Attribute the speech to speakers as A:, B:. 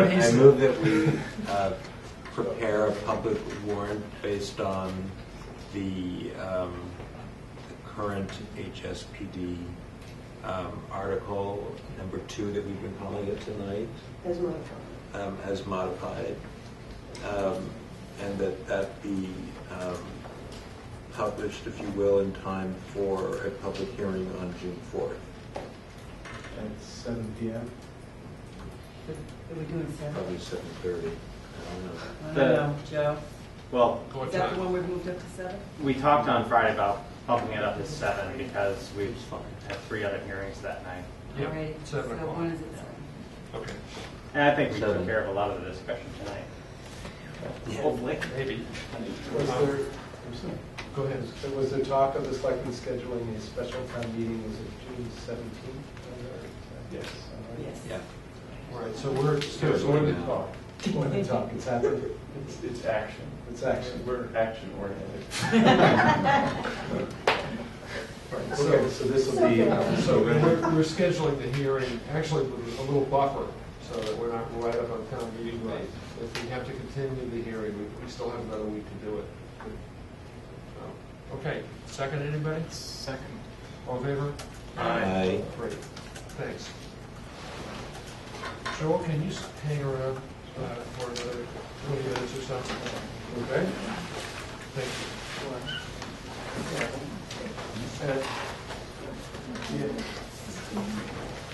A: I move that we uh, prepare a public warrant based on the um, the current HSPD um, article, number two that we've been calling it tonight,
B: as modified.
A: um, as modified, um, and that that be um, published, if you will, in time for a public hearing on June 4th.
C: At seven P M?
B: Are we doing seven?
A: Probably 7:30, I don't know.
B: I don't
D: The-
B: know, Joe.
D: Well,
B: Is that the one we've moved up to seven?
D: we talked on Friday about bumping it up to seven because we
A: It's fine.
D: had three other hearings that night.
E: Yep,
B: All right,
E: seven
B: So
E: o'clock.
B: one is at seven.
E: Okay,
D: And I think we took
A: Seven.
D: care of a lot of the discussion tonight.
A: Yeah.
D: Hopefully.
E: maybe.
C: Was there, I'm sorry.
E: Go ahead.
C: So Was there talk of the selectmen scheduling a special town meeting, was it June seventeenth? Yes.
B: Yes.
A: Yeah.
E: All right, so we're
A: So it's one
E: scheduling
A: to
E: now.
A: talk.
C: More than talk, it's happened,
F: It's, it's action.
C: it's action.
F: We're action oriented.
C: Okay, so this will be, uh,
E: So we're, we're scheduling the hearing, actually with a little buffer, so that we're not right up on town meeting night. If we have to continue the hearing, we, we still have another week to do it. So, Okay, second anybody?
F: Second.
E: All in favor?
A: Aye.
E: Great, thanks. Joel, can you s- hang around uh,